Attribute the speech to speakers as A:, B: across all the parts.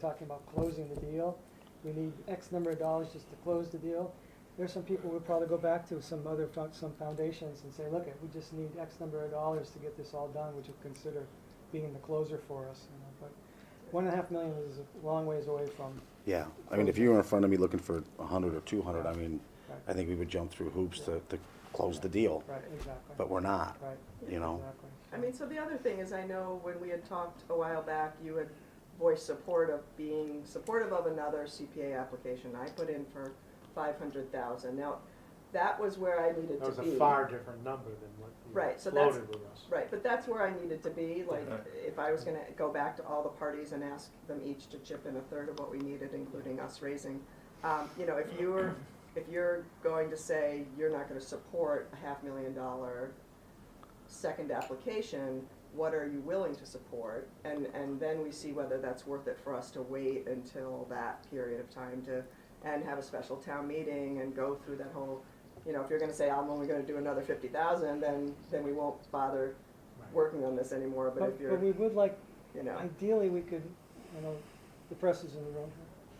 A: talking about closing the deal. We need X number of dollars just to close the deal. There's some people we'll probably go back to, some other, fo- some foundations and say, look, we just need X number of dollars to get this all done, would you consider being the closer for us? you know, But one and a half million is a long ways away from,
B: Yeah, I mean, if you were in front of me looking for a hundred or two hundred, I mean,
A: Right.
B: I think we would jump through hoops to, to close the deal,
A: right, exactly.
B: but we're not,
A: Right,
B: you know?
A: exactly.
C: I mean, so the other thing is, I know when we had talked a while back, you had voiced support of being supportive of another CPA application. I put in for five hundred thousand. Now, that was where I needed
D: That was
C: to be.
D: a far different number than what
C: Right, so
D: you
C: that's-
D: floated with us.
C: Right, but that's where I needed to be, like, if I was gonna go back to all the parties and ask them each to chip in a third of what we needed, including us raising. Um, you know, if you're, if you're going to say you're not gonna support a half million dollar second application, what are you willing to support? And, and then we see whether that's worth it for us to wait until that period of time to, and have a special town meeting and go through that whole, you know, if you're gonna say, I'm only gonna do another fifty thousand, then, then we won't bother
D: Right.
C: working on this anymore, but
A: But,
C: if
A: but
C: you're,
A: we would like,
C: you know,
A: ideally, we could, you know, the press is in the room,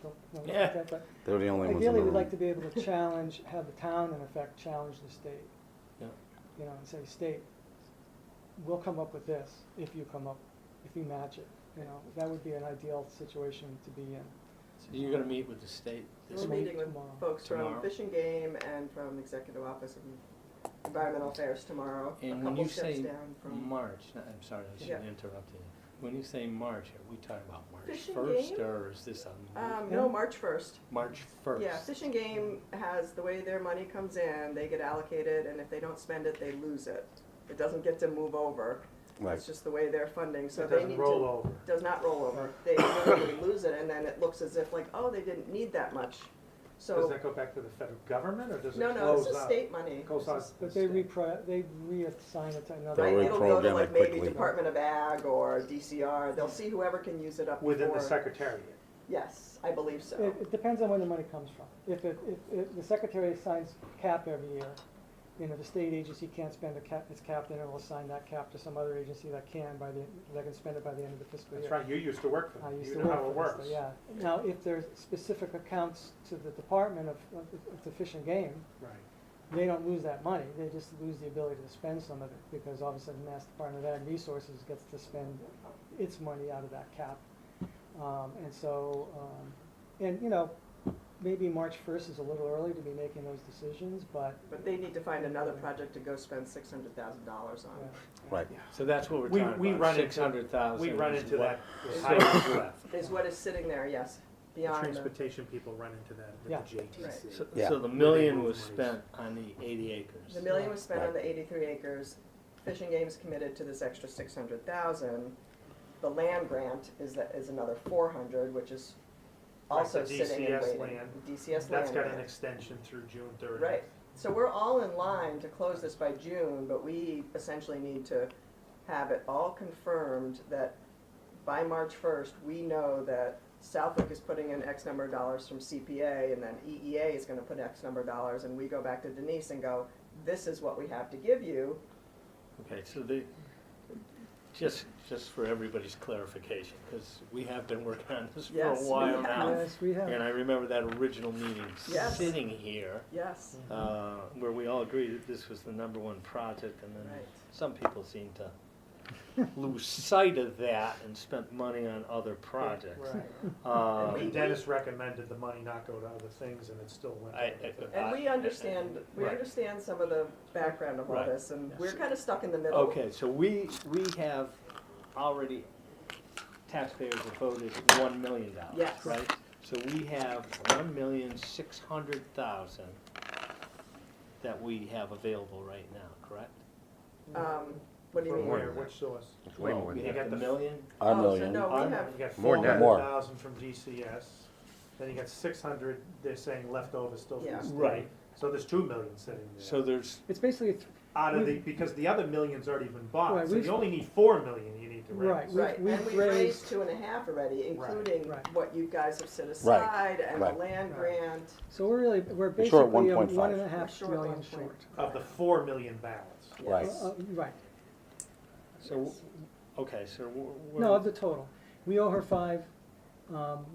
A: don't, don't look
E: Yeah.
A: at that, but
B: They're the only ones in the
A: Ideally, we'd
B: room.
A: like to be able to challenge, have the town in effect challenge the state.
E: Yeah.
A: You know, and say, state, we'll come up with this if you come up, if you match it, you know, that would be an ideal situation to be in.
E: So you're gonna meet with the state this
C: we're
A: Tomorrow.
E: week?
C: meeting with
A: Tomorrow.
C: folks from
E: Tomorrow.
C: Fish and Game and from Executive Office of Environmental Affairs tomorrow, a
E: And when
C: couple
E: you
C: shifts
E: say
C: down from.
E: March, no, I'm sorry, I
C: Yeah.
E: shouldn't interrupt you. When you say March, are we talking about March
C: Fish and
E: first,
C: game?
E: or is this on
C: Um, no, March first.
E: March first?
C: Yeah, Fish and Game has, the way their money comes in, they get allocated, and if they don't spend it, they lose it. It doesn't get to move over.
B: Like,
C: It's just the way they're funding, so
D: It
C: they
D: doesn't
C: need
D: roll
C: to,
D: over.
C: does not roll over. They literally lose it, and then it looks as if like, oh, they didn't need that much.
D: Does
C: So,
D: that go back to the federal government or does it
C: no,
D: close out?
C: no, this is state money.
D: It goes
C: This
D: out
C: is-
D: to the
A: But they
D: state.
A: repri, they reassign it to another.
B: They'll
C: Right, it'll go to
B: reprogram
C: like
B: it
C: maybe
B: quickly.
C: Department of Ag or DCR, they'll see whoever can use it up before.
D: Within the secretariat.
C: Yes, I believe so.
A: It, it depends on where the money comes from. If it, if, if the secretary assigns cap every year, you know, the state agency can't spend a cap, its cap, then it will assign that cap to some other agency that can by the, that can spend it by the end of the fiscal year.
D: That's right, you used to work for
A: I
D: them,
A: used
D: you
A: to
D: know
A: work
D: how
A: for
D: it
A: this,
D: works.
A: but Yeah, now, if there's specific accounts to the Department of, of of the Fish and Game,
D: Right.
A: they don't lose that money, they just lose the ability to spend some of it, because all of a sudden, Mass Department of Ag Resources gets to spend its money out of that cap. Um, and so, um, and, you know, maybe March first is a little early to be making those decisions, but,
C: But they need to find another project to go spend six hundred thousand dollars
A: uh,
C: on.
B: right,
E: So that's what we're
D: We-
E: talking
D: we
E: about,
D: run into-
E: six hundred thousand.
D: We run into that with
C: is
D: high
C: what-
D: school left.
C: Is what is sitting there, yes,
D: The
C: beyond the,
D: Transportation people run into that
A: Yeah.
D: with the JTC.
E: So,
B: Yeah.
E: so the million
D: move
E: was
D: monies.
E: spent on the eighty acres.
C: the million was spent on
B: Right.
C: the eighty-three acres. Fishing Game's committed to this extra six hundred thousand. The land grant is, that is another four hundred, which is
D: Right,
C: also
D: the
C: sitting and
D: DCS
C: waiting.
D: land.
C: DCS land.
D: That's got
C: grant.
D: an extension through June thirtieth.
C: Right, so we're all in line to close this by June, but we essentially need to have it all confirmed that by March first, we know that Southwick is putting in X number of dollars from CPA, and then EEA is gonna put X number of dollars, and we go back to Denise and go, this is what we have to give you.
E: Okay, so the, just, just for everybody's clarification, because we have been working on this for a
C: Yes, we
E: while
C: have.
E: now.
A: yes, we have.
E: And I remember that original meeting,
C: Yes.
E: sitting here,
C: Yes.
E: uh, where we all agreed that this was the number one project, and then
C: Right.
E: some people seem to lose sight of that and spent money on other projects.
D: Right.
E: Uh,
C: we-
D: And Dennis recommended the money not go to other things and it still went.
E: I-
D: to other
E: I-
C: And we understand, we
E: Right.
C: understand some of the background of all
E: Right.
C: this, and we're kinda stuck in the middle.
E: Okay, so we, we have already, taxpayers have voted one million dollars,
C: Yes.
E: right? So we have one million six hundred thousand that we have available right now, correct?
C: Um, what do you
D: From
C: mean?
D: where, which source?
F: Way more
E: Well, We
D: that.
E: have
D: You got
E: the
D: the-
E: million,
B: a
C: Oh,
B: million.
C: So no,
E: Our-
C: we have,
D: You got
B: More
D: four
B: than that.
D: hundred
B: More.
D: thousand from DCS, then you got six hundred, they're saying leftover still from
C: Yeah.
D: the state.
E: Right.
D: So there's two million sitting
E: so
D: there,
E: there's,
A: It's basically, th-
D: out of the, because the other million's already been
A: Right,
D: bought, so
A: we've-
D: you only need four million you need to
A: Right.
D: raise.
A: We've-
C: Right, and
A: we've
C: we raised
A: raised-
C: two and a half already, including
A: Right.
C: what you guys have set aside and the
B: right.
C: land
A: Right.
C: grant.
A: so we're really, we're
B: We're short
A: basically a
B: 1.5.
A: one and a
C: We're
A: half
C: short
A: million
C: 1.5.
A: short.
D: Of the four million balance.
B: Right.
A: Uh, uh, Right,
E: so, okay, so we're.
A: no, of the total. We owe her five, um,